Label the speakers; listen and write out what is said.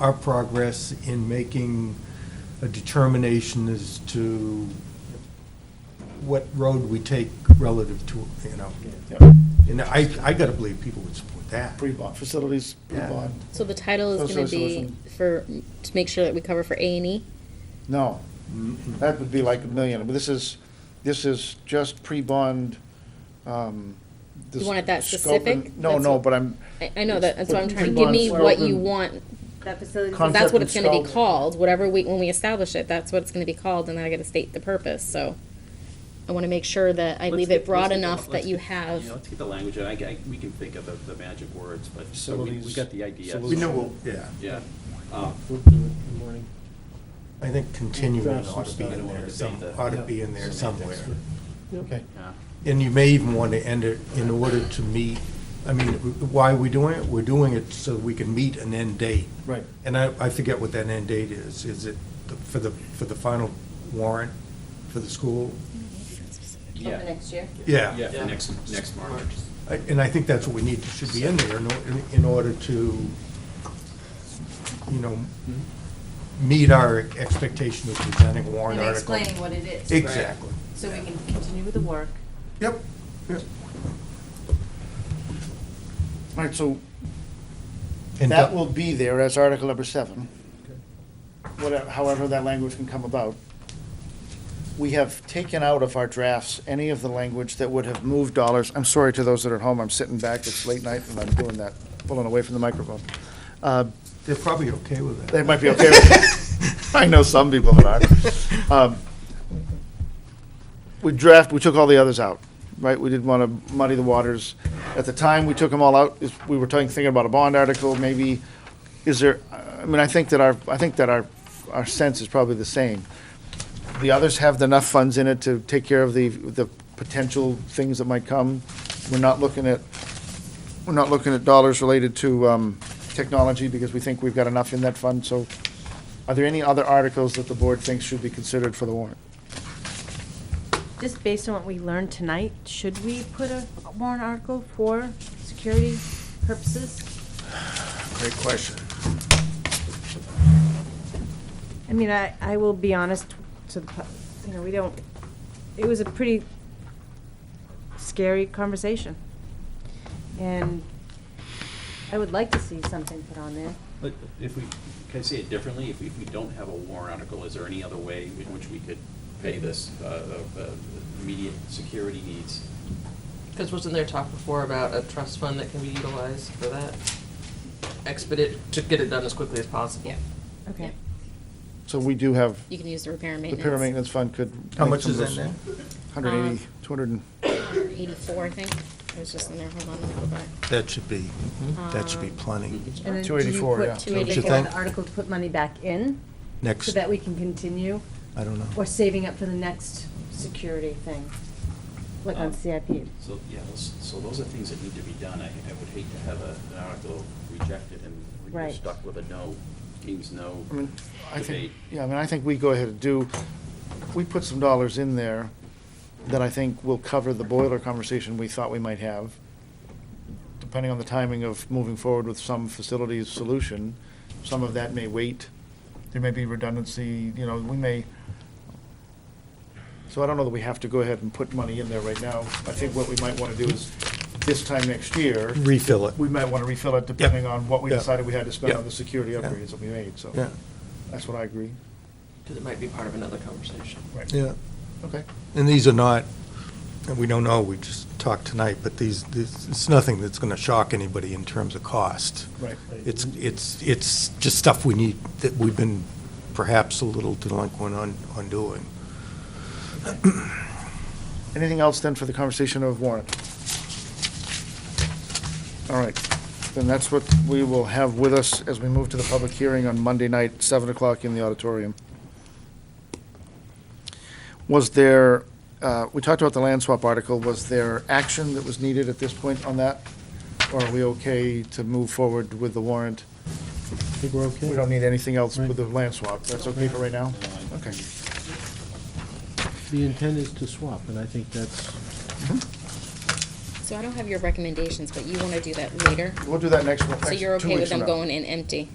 Speaker 1: our progress in making a determination as to what road we take relative to, you know.
Speaker 2: Yeah,
Speaker 1: And I, I gotta believe people would support that.
Speaker 2: Pre-bond, facilities,
Speaker 1: Yeah.
Speaker 2: pre-bond.
Speaker 3: So the title is
Speaker 2: Social
Speaker 3: gonna be
Speaker 2: solution.
Speaker 3: for, to make sure that we cover for A and E?
Speaker 2: No, that would be like a million. But This is, this is just pre-bond. um, the
Speaker 3: You want it that
Speaker 2: scope and-
Speaker 3: specific?
Speaker 2: No,
Speaker 3: That's
Speaker 2: no,
Speaker 3: what-
Speaker 2: but I'm,
Speaker 3: I, I know that, that's what I'm trying, to give
Speaker 2: Pre-bond
Speaker 3: me what you
Speaker 2: slogan.
Speaker 3: want,
Speaker 4: That facility.
Speaker 2: Con- Concept
Speaker 3: that's what
Speaker 2: and
Speaker 3: it's gonna be
Speaker 2: scope.
Speaker 3: called, whatever we, when we establish it, that's what it's gonna be called, and then I gotta state the purpose, so. I wanna make sure that I
Speaker 5: Let's
Speaker 3: leave
Speaker 5: get-
Speaker 3: it broad
Speaker 5: let's get the-
Speaker 3: enough that
Speaker 5: let's
Speaker 3: you
Speaker 5: get- yeah,
Speaker 3: have,
Speaker 5: Let's get the language, and I, I, we can think of the, the magic words, but, but we, we
Speaker 2: Facilities,
Speaker 5: got the idea.
Speaker 1: We know, what- yeah,
Speaker 5: Yeah. Um,
Speaker 6: We'll do it in the morning.
Speaker 1: I think continuing ought to be
Speaker 5: I
Speaker 1: in
Speaker 5: don't wanna
Speaker 1: there,
Speaker 5: debate
Speaker 1: some,
Speaker 5: that.
Speaker 1: ought to be in there somewhere.
Speaker 2: okay.
Speaker 5: yeah.
Speaker 1: And you may even want to end it in order to meet, I mean, why are we doing it? We're doing it so we can meet an end date.
Speaker 2: Right.
Speaker 1: And I, I forget what that end date is. Is it the- for the, for the final warrant for the school?
Speaker 4: Over
Speaker 5: Yeah,
Speaker 4: next year.
Speaker 1: Yeah.
Speaker 5: yeah, for next, next March.
Speaker 1: I- And I think that's what we need, should be in there in, or- in- in order to, you know,
Speaker 6: Mm-hmm.
Speaker 1: meet our expectation of presenting a warrant
Speaker 4: And
Speaker 1: article.
Speaker 4: explaining what it is.
Speaker 1: Exactly.
Speaker 4: So we can continue with the work.
Speaker 1: Yep, yep.
Speaker 2: All right, so
Speaker 1: And
Speaker 2: that
Speaker 1: do-
Speaker 2: will be there as article number seven. Whatever, however that language can come about. We have taken out of our drafts any of the language that would have moved dollars. I'm sorry to those that are at home, I'm sitting back, it's late night and I'm doing that, pulling away from the microphone. Uh,
Speaker 1: They're probably okay with that.
Speaker 2: They might be okay with it. I know some people that are. Um, We draft, we took all the others out, right? We didn't want to muddy the waters. At the time, we took them all out, is- we were talking, thinking about a bond article, maybe, is there, I mean, I think that our, I think that our, our sense is probably the same. The others have enough funds in it to take care of the, the potential things that might come. We're not looking at we're not looking at dollars related to um, technology because we think we've got enough in that fund. So are there any other articles that the board thinks should be considered for the warrant?
Speaker 4: Just based on what we learned tonight, should we put a warrant article for security purposes?
Speaker 2: Great question.
Speaker 4: I mean, I, I will be honest to the, pub- you know, we don't, it was a pretty scary conversation. And I would like to see something put on there.
Speaker 5: But if we, can I say it differently? If we, if we don't have a warrant article, is there any other way in which we could pay this, uh, uh, uh, immediate security needs?
Speaker 7: Because wasn't there talk before about a trust fund that can be utilized for that? Expedite, to get it done as quickly as possible.
Speaker 3: yeah,
Speaker 4: Okay.
Speaker 2: So we do have,
Speaker 3: you can use the repair and
Speaker 2: the
Speaker 3: maintenance.
Speaker 2: Pyramid Maintenance Fund could.
Speaker 1: How
Speaker 2: make
Speaker 1: much
Speaker 2: some
Speaker 1: is
Speaker 2: of
Speaker 1: in
Speaker 2: those-
Speaker 1: there?
Speaker 2: 180, 200, and-
Speaker 3: Eighty-four, I think, it was just in there, hold on, let me go back. Um,
Speaker 1: That should be, that should be plenty.
Speaker 4: And then do
Speaker 2: 284,
Speaker 4: you
Speaker 2: yeah.
Speaker 4: put two
Speaker 1: Don't you
Speaker 4: eighty-four
Speaker 1: think?
Speaker 4: the article to put money back in, so
Speaker 1: Next,
Speaker 4: that we can continue,
Speaker 1: I don't know.
Speaker 4: or saving up for the next security thing, like on
Speaker 5: Um,
Speaker 4: CIP?
Speaker 5: So, yeah, those, so those are things that need to be done. I, I would hate to have a, an article rejected and we're
Speaker 4: Right.
Speaker 5: stuck with a no, teams no
Speaker 2: I mean, I think,
Speaker 5: debate.
Speaker 2: yeah, I mean, I think we go ahead and do, we put some dollars in there that I think will cover the boiler conversation we thought we might have, depending on the timing of moving forward with some facilities solution. Some of that may wait. There may be redundancy, you know, we may, so I don't know that we have to go ahead and put money in there right now. I think what we might want to do is, this time next year,
Speaker 1: Refill it.
Speaker 2: we might want to refill it depending on what we
Speaker 1: Yeah.
Speaker 2: decided we had to spend
Speaker 1: Yeah.
Speaker 2: on the security
Speaker 1: Yeah.
Speaker 2: upgrades that we made, so.
Speaker 1: Yeah,
Speaker 2: That's what I agree.
Speaker 7: Because it might be part of another conversation.
Speaker 2: Right.
Speaker 1: yeah.
Speaker 2: Okay.
Speaker 1: And these are not, and we don't know, we just talked tonight, but these, this- it's nothing that's going to shock anybody in terms of cost.
Speaker 2: Right.
Speaker 1: It's, it's, it's just stuff we need, that we've been perhaps a little delinquent on, on doing.
Speaker 2: Anything else then for the conversation of warrant? All right, then that's what we will have with us as we move to the public hearing on Monday night, seven o'clock in the auditorium. Was there, uh, we talked about the land swap article, was there action that was needed at this point on that? Or are we okay to move forward with the warrant?
Speaker 6: I think we're okay.
Speaker 2: We don't need anything else with the land swap, that's okay for right now? Okay.
Speaker 6: The intent is to swap, and I think that's,
Speaker 2: Mm-hmm.
Speaker 3: So I don't have your recommendations, but you wanna do that later,
Speaker 2: We'll do that next one,
Speaker 3: so
Speaker 2: next-
Speaker 3: you're
Speaker 2: two
Speaker 3: okay with
Speaker 2: weeks from
Speaker 3: them
Speaker 2: now.
Speaker 3: going in empty?